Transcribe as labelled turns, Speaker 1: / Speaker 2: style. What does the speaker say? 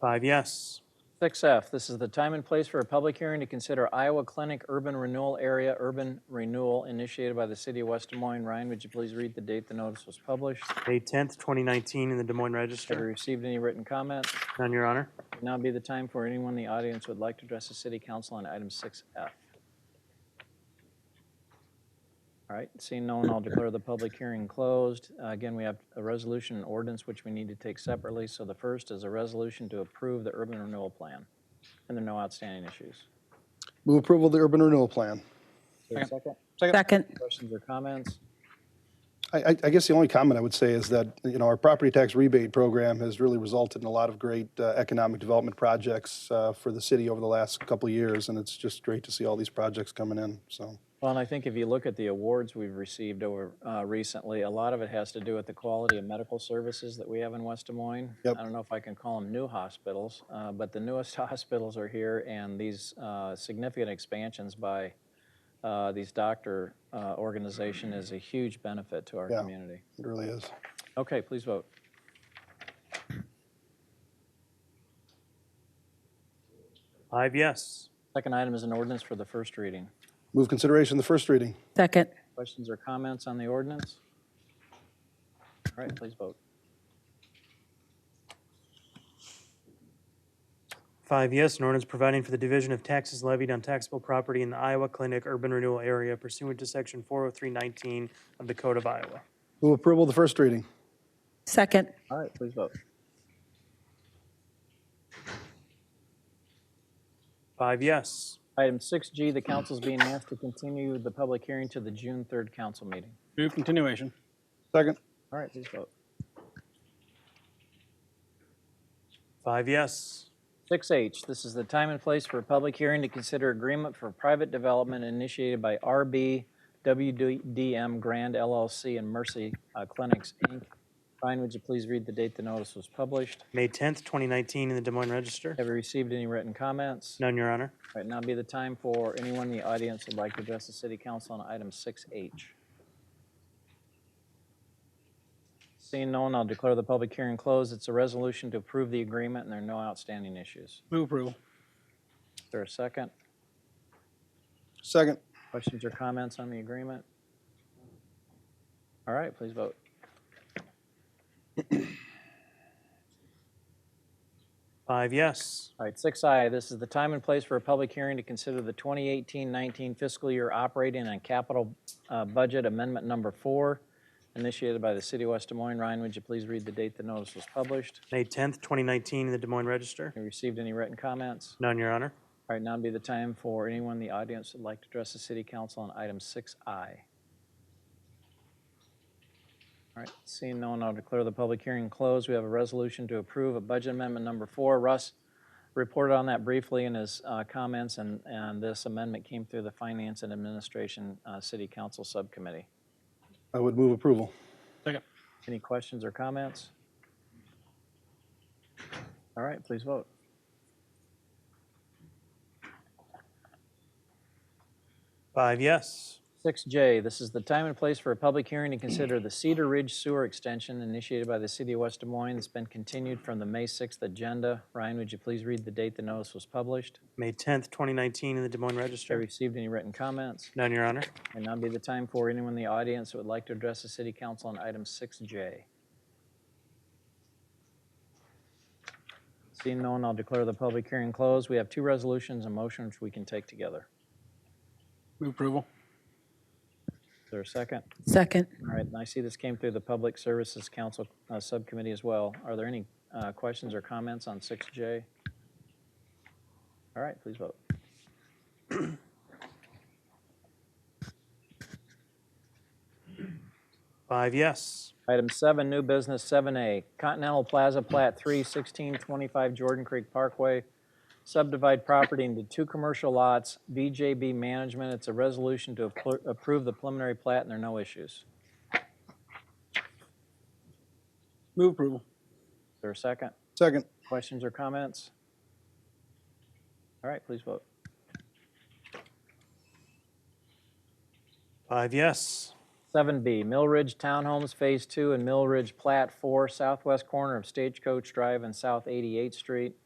Speaker 1: Five yes.
Speaker 2: 6F, this is the time and place for a public hearing to consider Iowa Clinic Urban Renewal Area Urban Renewal initiated by the City of West Des Moines. Ryan, would you please read the date the notice was published?
Speaker 1: May 10th, 2019, in the Des Moines
Speaker 2: Have we
Speaker 1: Register.
Speaker 2: received any written comments?
Speaker 1: None, Your Honor.
Speaker 2: Now be the time for anyone in the audience who would like to address the city council on item 6F. All right, seeing no one, I'll declare the public hearing closed. Uh, Again, we have a resolution and ordinance which we need to take separately. So the first is a resolution to approve the urban renewal plan. And there are no outstanding issues.
Speaker 3: Move approval of the urban renewal plan.
Speaker 2: Is there a second?
Speaker 4: Second.
Speaker 2: Questions or comments?
Speaker 3: I, I, I guess the only comment I would say is that, you know, our property tax rebate program has really resulted in a lot of great uh, economic development projects uh, for the city over the last couple of years, and it's just great to see all these projects coming in, so.
Speaker 2: Well, and I think if you look at the awards we've received over uh, recently, a lot of it has to do with the quality of medical services that we have in West Des Moines.
Speaker 3: Yep.
Speaker 2: I don't know if I can call them new hospitals, uh, but the newest hospitals are here, and these uh, significant expansions by uh, these doctor uh, organization is a huge benefit to our
Speaker 3: Yeah.
Speaker 2: community.
Speaker 3: It really is.
Speaker 2: Okay, please vote.
Speaker 1: Five yes.
Speaker 2: Second item is an ordinance for the first reading.
Speaker 3: Move consideration of the first reading.
Speaker 4: Second.
Speaker 2: Questions or comments on the ordinance? All right, please vote.
Speaker 1: Five yes, an ordinance providing for the division of taxes levied on taxable property in the Iowa Clinic Urban Renewal Area pursuant to Section 40319 of the Code of Iowa.
Speaker 3: Move approval of the first reading.
Speaker 4: Second.
Speaker 2: All right, please vote.
Speaker 1: Five yes.
Speaker 2: Item 6G, the council's being asked to continue the public hearing to the June 3rd council meeting.
Speaker 5: Move continuation.
Speaker 3: Second.
Speaker 2: All right, please vote.
Speaker 1: Five yes.
Speaker 2: 6H, this is the time and place for a public hearing to consider agreement for private development initiated by RB WDM Grand LLC and Mercy uh, Clinics, Inc. Ryan, would you please read the date the notice was published?
Speaker 1: May 10th, 2019, in the Des Moines Register.
Speaker 2: Have you received any written comments?
Speaker 1: None, Your Honor.
Speaker 2: All right, now be the time for anyone in the audience who'd like to address the city council on item 6H. Seeing no one, I'll declare the public hearing closed. It's a resolution to approve the agreement, and there are no outstanding issues.
Speaker 5: Move approval.
Speaker 2: Is there a second?
Speaker 3: Second.
Speaker 2: Questions or comments on the agreement? All right, please vote.
Speaker 1: Five yes.
Speaker 2: All right, 6I, this is the time and place for a public hearing to consider the 2018-19 fiscal year operating and capital uh, budget amendment number four, initiated by the City of West Des Moines. Ryan, would you please read the date the notice was published?
Speaker 1: May 10th, 2019, in the Des Moines Register.
Speaker 2: You received any written comments?
Speaker 1: None, Your Honor.
Speaker 2: All right, now would be the time for anyone in the audience that'd like to address the city council on item 6I. All right, seeing no one, I'll declare the public hearing closed. We have a resolution to approve a budget amendment number four. Russ reported on that briefly in his uh, comments, and, and this amendment came through the Finance and Administration uh, City Council Subcommittee.
Speaker 3: I would move approval.
Speaker 5: Second.
Speaker 2: Any questions or comments? All right, please vote.
Speaker 1: Five yes.
Speaker 2: 6J, this is the time and place for a public hearing to consider the Cedar Ridge Sewer Extension initiated by the City of West Des Moines. It's been continued from the May 6th agenda. Ryan, would you please read the date the notice was published?
Speaker 1: May 10th, 2019, in the Des Moines
Speaker 2: Have
Speaker 1: Register.
Speaker 2: you received any written comments?
Speaker 1: None, Your Honor.
Speaker 2: And now be the time for anyone in the audience that would like to address the City Council on item 6J. Seeing no one, I'll declare the public hearing closed. We have two resolutions and motions we can take together.
Speaker 5: Move approval.
Speaker 2: Is there a second?
Speaker 4: Second.
Speaker 2: All right, and I see this came through the Public Services Council uh, Subcommittee as well. Are there any uh, questions or comments on 6J? All right, please vote.
Speaker 1: Five yes.
Speaker 2: Item seven, new business, 7A, Continental Plaza Plat 3, 1625 Jordan Creek Parkway, subdivide property into two commercial lots, BJB Management. It's a resolution to appro- approve the preliminary plat, and there are no issues.
Speaker 5: Move approval.
Speaker 2: Is there a second?
Speaker 3: Second.
Speaker 2: Questions or comments? All right, please vote.
Speaker 1: Five yes.
Speaker 2: 7B, Mill Ridge Townhomes Phase 2 and Mill Ridge Plat 4, southwest corner of Stagecoach Drive and South 88th Street.